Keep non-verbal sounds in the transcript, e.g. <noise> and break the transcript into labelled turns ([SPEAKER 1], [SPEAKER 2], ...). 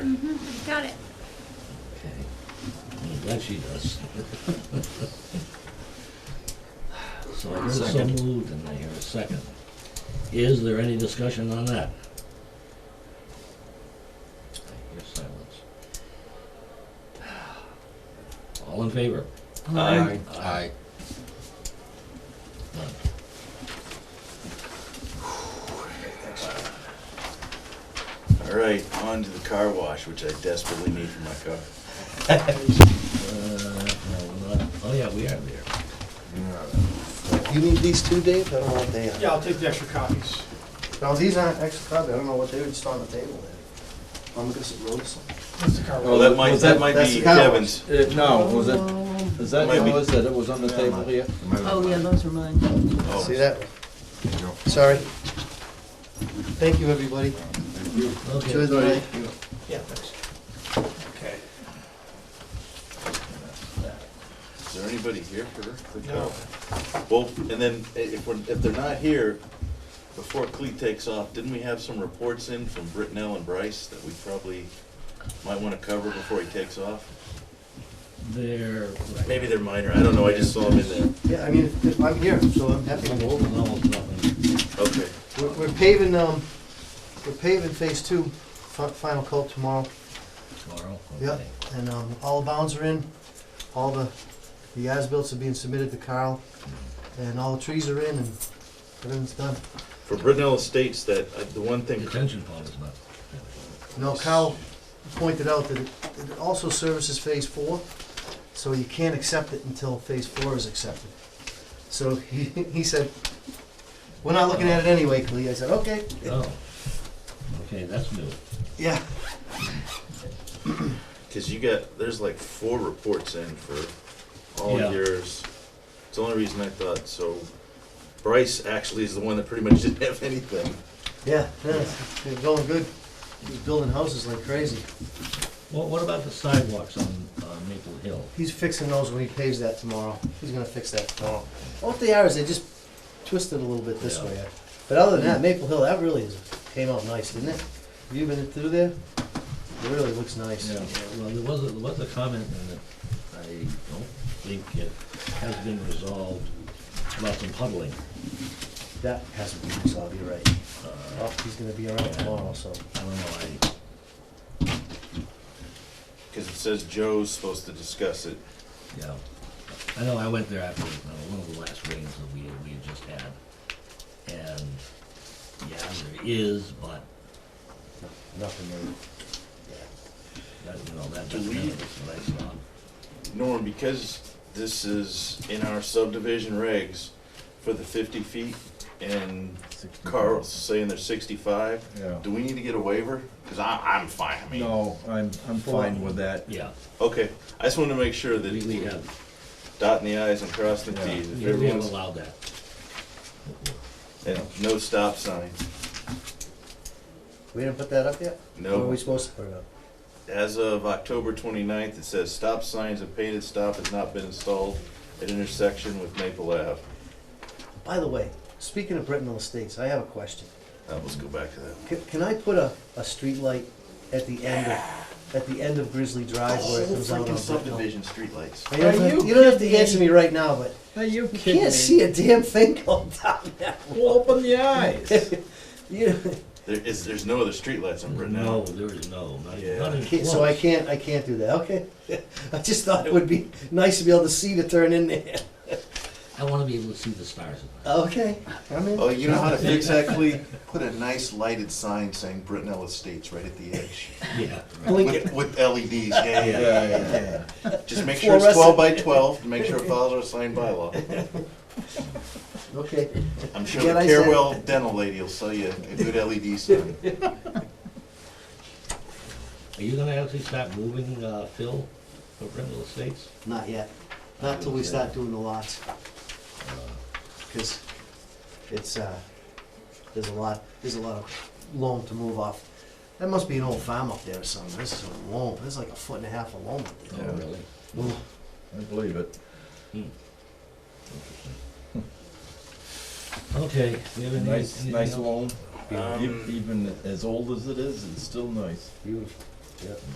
[SPEAKER 1] That she does. <laughs> So I hear so
[SPEAKER 2] Second.
[SPEAKER 1] moved and I hear a second. Is there any discussion on that? I hear silence. <sighs> All in favor?
[SPEAKER 2] Aye.
[SPEAKER 1] Aye. None.
[SPEAKER 3] All right, on to the car wash, which I desperately need for my car.
[SPEAKER 1] Uh, no, we're not- Oh, yeah, we are there.
[SPEAKER 4] You need these two, Dave? I don't know what they are.
[SPEAKER 5] Yeah, I'll take the extra copies.
[SPEAKER 4] No, these aren't extra copy. I don't know what they were just on the table there. I'm gonna get roll something.
[SPEAKER 5] That's the car.
[SPEAKER 3] Oh, that might,
[SPEAKER 2] Was
[SPEAKER 3] that
[SPEAKER 2] that-
[SPEAKER 3] might
[SPEAKER 4] that's
[SPEAKER 3] be
[SPEAKER 4] the car wash.
[SPEAKER 3] Kevin's.
[SPEAKER 2] Uh, No, was it, is that
[SPEAKER 3] Might be.
[SPEAKER 2] yours that it was on the table here?
[SPEAKER 6] Oh, yeah, those are mine.
[SPEAKER 3] Oh,
[SPEAKER 4] See that? Sorry. Thank you, everybody. Enjoy the night.
[SPEAKER 5] Yeah, thanks. Okay.
[SPEAKER 3] Is there anybody here for the
[SPEAKER 5] No.
[SPEAKER 3] car? Well, and then i- if we're, if they're not here, before Cleat takes off, didn't we have some reports in from Britnell and Bryce that we probably might wanna cover before he takes off?
[SPEAKER 1] There.
[SPEAKER 3] Maybe they're minor, I don't know, I just saw them in there.
[SPEAKER 4] Yeah, I mean, if- if I'm here, so I'm happy to go over.
[SPEAKER 1] Almost nothing.
[SPEAKER 3] Okay,
[SPEAKER 4] We're we're paving, um, we're paving phase two, fi- final coat tomorrow.
[SPEAKER 1] Tomorrow?
[SPEAKER 4] Yeah,
[SPEAKER 1] Okay.
[SPEAKER 4] and um, all the bounds are in, all the, the as-bills are being submitted to Carl, and all the trees are in, and everything's done.
[SPEAKER 3] for Britnell Estates, that, uh, the one thing,
[SPEAKER 1] Detention pond is not.
[SPEAKER 4] No, Carl pointed out that it it also services Phase Four, so you can't accept it until Phase Four is accepted. So he, <laughs> he said, we're not looking at it anyway, Clea. I said, okay,
[SPEAKER 1] Oh, okay, that's new.
[SPEAKER 4] yeah.
[SPEAKER 3] cause you got, there's like four reports in for all
[SPEAKER 1] Yeah.
[SPEAKER 3] yours. It's the only reason I thought, so Bryce actually is the one that pretty much <laughs> didn't have anything.
[SPEAKER 4] Yeah, yeah, it's it's going good. He's building houses like crazy.
[SPEAKER 1] Well, what about the sidewalks on uh, Maple Hill?
[SPEAKER 4] He's fixing those when he paves that tomorrow. He's gonna fix that tomorrow. What they are is they just twisted a little bit this
[SPEAKER 1] Yeah.
[SPEAKER 4] way. But other than that, Maple Hill, that really is, came out nice, didn't it? Have you been through there? It really looks nice.
[SPEAKER 1] Well, there was, a- there was a comment in it, I don't think it has been resolved, about some puddling.
[SPEAKER 4] That hasn't been resolved, you're right.
[SPEAKER 1] Uh,
[SPEAKER 4] Well, Oh, he's gonna be around tomorrow, so.
[SPEAKER 1] I don't know,
[SPEAKER 3] Because it says Joe's supposed to discuss it.
[SPEAKER 1] I, yeah. I know I went there after, uh, one of the last rains that we, we had just had. And, yeah, there is, but
[SPEAKER 4] Nothing really.
[SPEAKER 1] that, you know, that, that's
[SPEAKER 3] Do we-
[SPEAKER 1] what I saw.
[SPEAKER 3] Norm, because this is in our subdivision regs for the fifty feet and Carl's saying they're sixty-five,
[SPEAKER 2] Yeah.
[SPEAKER 3] do we need to get a waiver? Because I, I'm fine, I mean.
[SPEAKER 2] No, I'm, I'm fine with that.
[SPEAKER 1] Yeah,
[SPEAKER 3] Okay, I just wanted to make sure
[SPEAKER 1] we, we
[SPEAKER 3] that
[SPEAKER 1] have,
[SPEAKER 3] dotting the i's and crossing the t's. If
[SPEAKER 1] we we have
[SPEAKER 3] everyone's,
[SPEAKER 1] allowed that.
[SPEAKER 3] and no stop signs.
[SPEAKER 4] We didn't put that up yet? Or were
[SPEAKER 3] No,
[SPEAKER 4] we supposed to put it up?
[SPEAKER 3] as of October 29th, it says stop signs and painted stop has not been installed at intersection with Maple Ave.
[SPEAKER 4] By the way, speaking of Brittenell Estates, I have a question.
[SPEAKER 3] Uh, let's go back to that.
[SPEAKER 4] Can, can I put a, a street light at the end of, at the end of Grizzly Drive where it comes out on Brittenell?
[SPEAKER 3] streetlights.
[SPEAKER 4] I don't
[SPEAKER 5] Are
[SPEAKER 4] have-
[SPEAKER 5] you
[SPEAKER 4] You don't have to answer me right now, but
[SPEAKER 2] Hey, you
[SPEAKER 4] you
[SPEAKER 2] kidding
[SPEAKER 4] can't see a damn thing <laughs> going down that
[SPEAKER 2] Well, Open the <laughs> eyes.
[SPEAKER 4] You,
[SPEAKER 3] There is, there's no other streetlights on Brittenell.
[SPEAKER 1] No, there is no, not even, not
[SPEAKER 3] Yeah.
[SPEAKER 1] even
[SPEAKER 4] can't-
[SPEAKER 1] close.
[SPEAKER 4] so I can't, I can't do that, okay? <laughs> I just thought it would be nice to be able to see to turn in there. <laughs>
[SPEAKER 1] I wanna be able to see the stars.
[SPEAKER 4] Okay, I'm in.
[SPEAKER 3] Oh, you know how to fix
[SPEAKER 4] <laughs>
[SPEAKER 3] that, Clea? Put a nice lighted sign saying Brittenell Estates right at
[SPEAKER 4] <laughs>
[SPEAKER 3] the edge.
[SPEAKER 1] Yeah.
[SPEAKER 4] Blink it.
[SPEAKER 3] With, with LEDs, yeah, yeah, yeah.
[SPEAKER 2] Yeah, yeah,
[SPEAKER 3] Just make sure
[SPEAKER 4] Fluorescent.
[SPEAKER 3] it's twelve by twelve, to make sure it follows our
[SPEAKER 4] <laughs>
[SPEAKER 3] sign bylaw.
[SPEAKER 4] <laughs> Okay,
[SPEAKER 3] I'm sure
[SPEAKER 4] Forget
[SPEAKER 3] the
[SPEAKER 4] I said
[SPEAKER 3] Carewell Dental lady will sell you a good LED sign.
[SPEAKER 1] Are you gonna actually start moving, uh, Phil for Brindle Estates?
[SPEAKER 4] not yet. Not till we start doing the lots. Cause it's, uh, there's a lot, there's a lot of loam to move off. That must be an old farm up there or something. This is a loam, this is like a foot and a half of loam up
[SPEAKER 1] Oh,
[SPEAKER 4] there.
[SPEAKER 1] really? Hmm.
[SPEAKER 4] Ooh.
[SPEAKER 2] I believe it.
[SPEAKER 1] Okay, we have any,
[SPEAKER 2] Hmm. Nice,
[SPEAKER 1] anything
[SPEAKER 2] nice
[SPEAKER 1] else?
[SPEAKER 2] loan.
[SPEAKER 3] Um,
[SPEAKER 2] Even as old as it is, it's still nice.
[SPEAKER 4] Beautiful. Yep.